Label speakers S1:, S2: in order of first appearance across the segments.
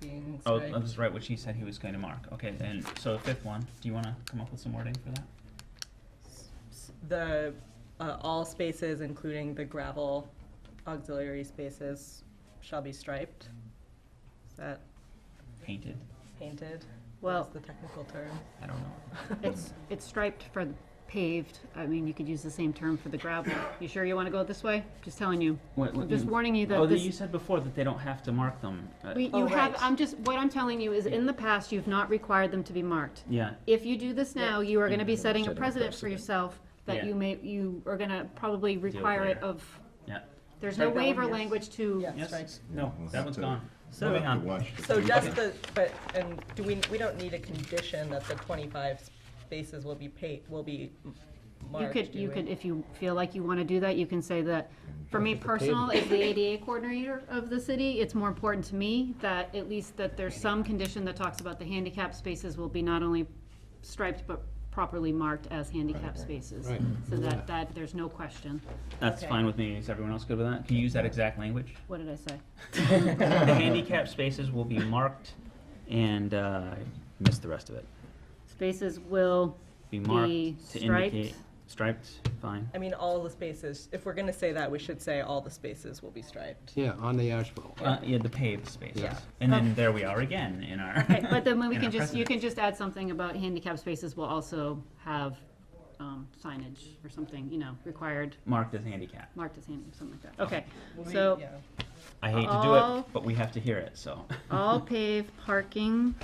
S1: things,
S2: Oh,
S1: right?
S2: I'll just write what she said he was going to mark. Okay, then, so the fifth one, do you wanna come up with some wording for that?
S1: S- The, uh, all spaces, including the gravel auxiliary spaces, shall be striped. Is that
S2: Painted,
S1: painted?
S3: Well-
S1: What's the technical term?
S2: I don't know.
S3: It's, it's striped for paved, I mean, you could use the same term for the gravel. You sure you wanna go this way? Just telling you.
S2: What, what
S3: I'm just
S2: you-
S3: warning you
S2: Oh,
S3: that
S2: that you
S3: this,
S2: said before that they don't have to mark them. Uh,
S3: we,
S1: Oh,
S3: you have,
S1: right.
S3: I'm just, what I'm telling you is, in the past, you've not required them to be marked.
S2: Yeah,
S3: If you do this now, you are gonna be setting a
S4: Setting a
S3: precedent for
S4: precedent.
S3: yourself that
S2: Yeah.
S3: you may, you are gonna probably require it
S2: later.
S3: of,
S2: yeah,
S3: there's
S1: Strike
S3: no
S1: that one,
S3: waiver
S1: yes.
S3: language to,
S1: Yeah. Strike.
S2: yes, no,
S4: We'll
S2: that
S4: have
S2: one's
S4: to-
S2: gone. um,
S1: So- um,
S4: We'll
S2: Moving
S4: have to
S2: on.
S4: watch the
S1: So
S4: tape.
S1: just the, but, and do we, we don't need a condition that the twenty-five spaces will be paid, will be m-
S3: you
S1: marked,
S3: could,
S1: do
S3: you
S1: we?
S3: could, if you feel like you wanna do that, you can say that, for me personal, as the ADA coordinator of the city, it's more important to me that at least that there's some condition that talks about the handicap spaces will be not only striped, but properly marked as handicap spaces.
S5: Right.
S3: So that, that, there's no question.
S2: That's
S1: Okay.
S2: fine with me, is everyone else good with that? Can you use that exact language?
S3: What did I say?
S2: The handicap spaces will be marked and, uh, I missed the rest of it.
S3: Spaces will
S2: Be
S3: Be
S2: marked to
S3: striped.
S2: indicate, striped, fine.
S1: I mean, all the spaces, if we're gonna say that, we should say all the spaces will be striped.
S5: Yeah, on the asphalt.
S2: Uh, yeah, the paved spaces.
S1: Yeah.
S2: And then there we are again in our.
S3: Right, Oh. but then we
S2: in
S3: can
S2: our
S3: just, you
S2: precedent.
S3: can just add something about handicap spaces will also have um, signage or something, you know, required,
S2: Marked as handicap.
S3: marked as handicap, something like that. Okay,
S1: Will we-
S3: so
S1: yeah.
S2: I hate to do
S3: All-
S2: it, but we have to hear it, so.
S3: all paved parking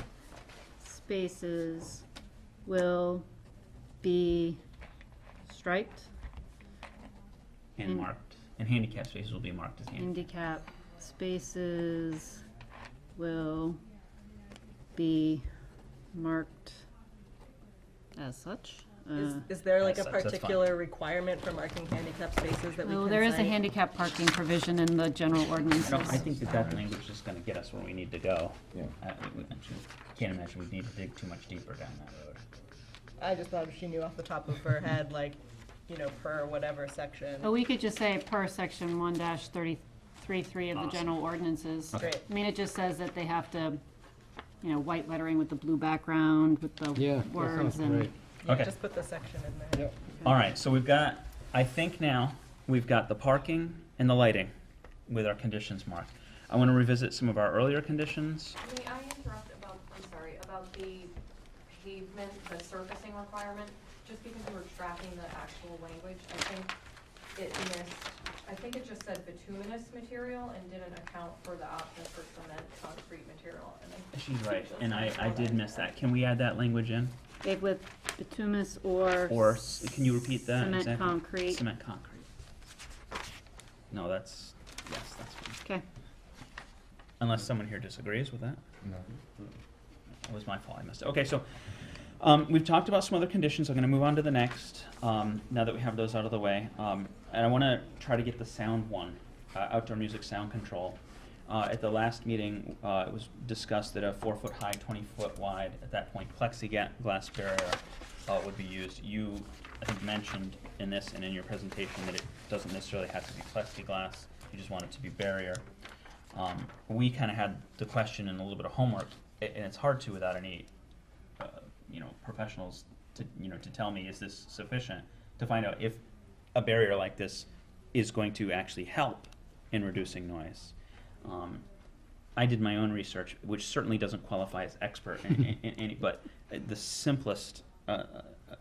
S3: spaces will be striped,
S2: And
S3: And-
S2: marked, and handicap spaces will be marked as handicap.
S3: handicap spaces will be marked as such.
S1: Is,
S3: Uh,
S1: is there like a
S2: Yes, that's- that's fine.
S1: particular requirement for marking handicap spaces that we can
S3: Well, oh, there is a
S1: cite?
S3: handicap parking provision in the general
S2: I
S3: ordinances.
S2: don't, I think that that language is gonna get us where we need to go.
S4: Yeah.
S2: I, we, we should- can't imagine we need to dig too much deeper down that road.
S1: I just thought she knew off the top of her head, like, you know, per whatever section.
S3: But we could just say per section one dash thirty-three, three of the
S2: Awesome.
S3: general ordinances. I
S1: Great.
S3: mean, it just says that they have to, you know, white lettering with the blue background, with
S5: Yeah,
S3: the
S5: that sounds
S3: words and.
S5: great.
S1: Yeah,
S2: Okay.
S1: Just put the section in there.
S2: Alright, so we've got, I think now, we've got the parking and the lighting with our conditions marked. I wanna revisit some of our earlier conditions.
S6: May I interrupt about, I'm sorry, about the pavement, the surfacing requirement? Just because we were tracking the actual language, I think it missed, I think it just said bituminous material and didn't account for the option for cement, concrete material. And I-
S2: She's right, and I, I did miss that. Can we add that language in?
S3: Paved with bituminous or.
S2: Or, s- can you repeat that?
S3: Cement
S2: exactly?
S3: concrete.
S2: Cement concrete. No, that's, yes, that's fine.
S3: Okay,
S2: Unless someone here disagrees with that. It was my fault, I missed it. Okay, so, um, we've talked about some other conditions, I'm gonna move on to the next, um, now that we have those out of the way. Um, and I wanna try to get the sound one, uh, outdoor music sound control. Uh, at the last meeting, uh, it was discussed that a four-foot high, twenty-foot wide, at that point, plexiglass barrier, uh, would be used. You, I think, mentioned in this and in your presentation that it doesn't necessarily have to be plexiglass, you just want it to be barrier um, we kind of had the question and a little bit of homework, a- and it's hard to without any, uh, you know, professionals to, you know, to tell me, is this sufficient? To find out if a barrier like this is going to actually help in reducing noise. Um, I did my own research, which certainly doesn't qualify as expert in, in, in any, but uh, the simplest uh,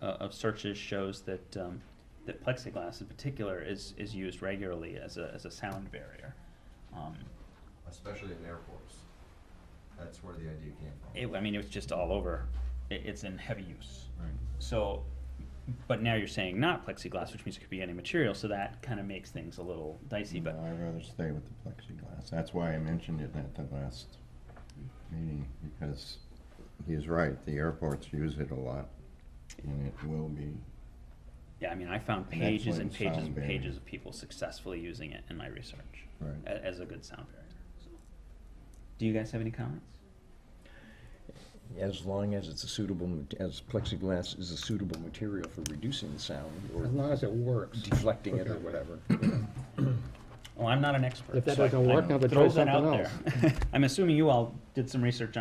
S2: uh, of searches shows that um, that plexiglass in particular is is used regularly as a as a sound barrier. Um,
S7: especially in airports. That's where the idea came from.
S2: it, I mean, it was just all over. It, it's in heavy use.
S7: Right.
S2: So, but now you're saying not plexiglass, which means it could be any material. So that kind of makes things a little dicey.
S4: No,
S2: But
S4: I'd rather stay with the plexiglass. That's why I mentioned it at the last meeting, because he's right, the airports use it a lot, and it will be,
S2: yeah, I mean, I found
S4: And that's
S2: pages
S4: what
S2: and
S4: it
S2: pages
S4: sound
S2: and
S4: barrier.
S2: pages of people successfully using it in my research
S4: right.
S2: a- as a good sound barrier. So. Do you guys have any comments?
S8: As long as it's a suitable, mat- as plexiglass is a suitable material for reducing sound
S5: As
S8: or
S5: long as it works.
S8: deflecting it or
S5: Okay.
S8: whatever.
S2: Well, Oh, I'm not an expert.
S5: If that
S2: so I-
S5: doesn't
S2: I
S5: work, now try
S2: throw that
S5: something
S2: out there. I'm assuming you all did some research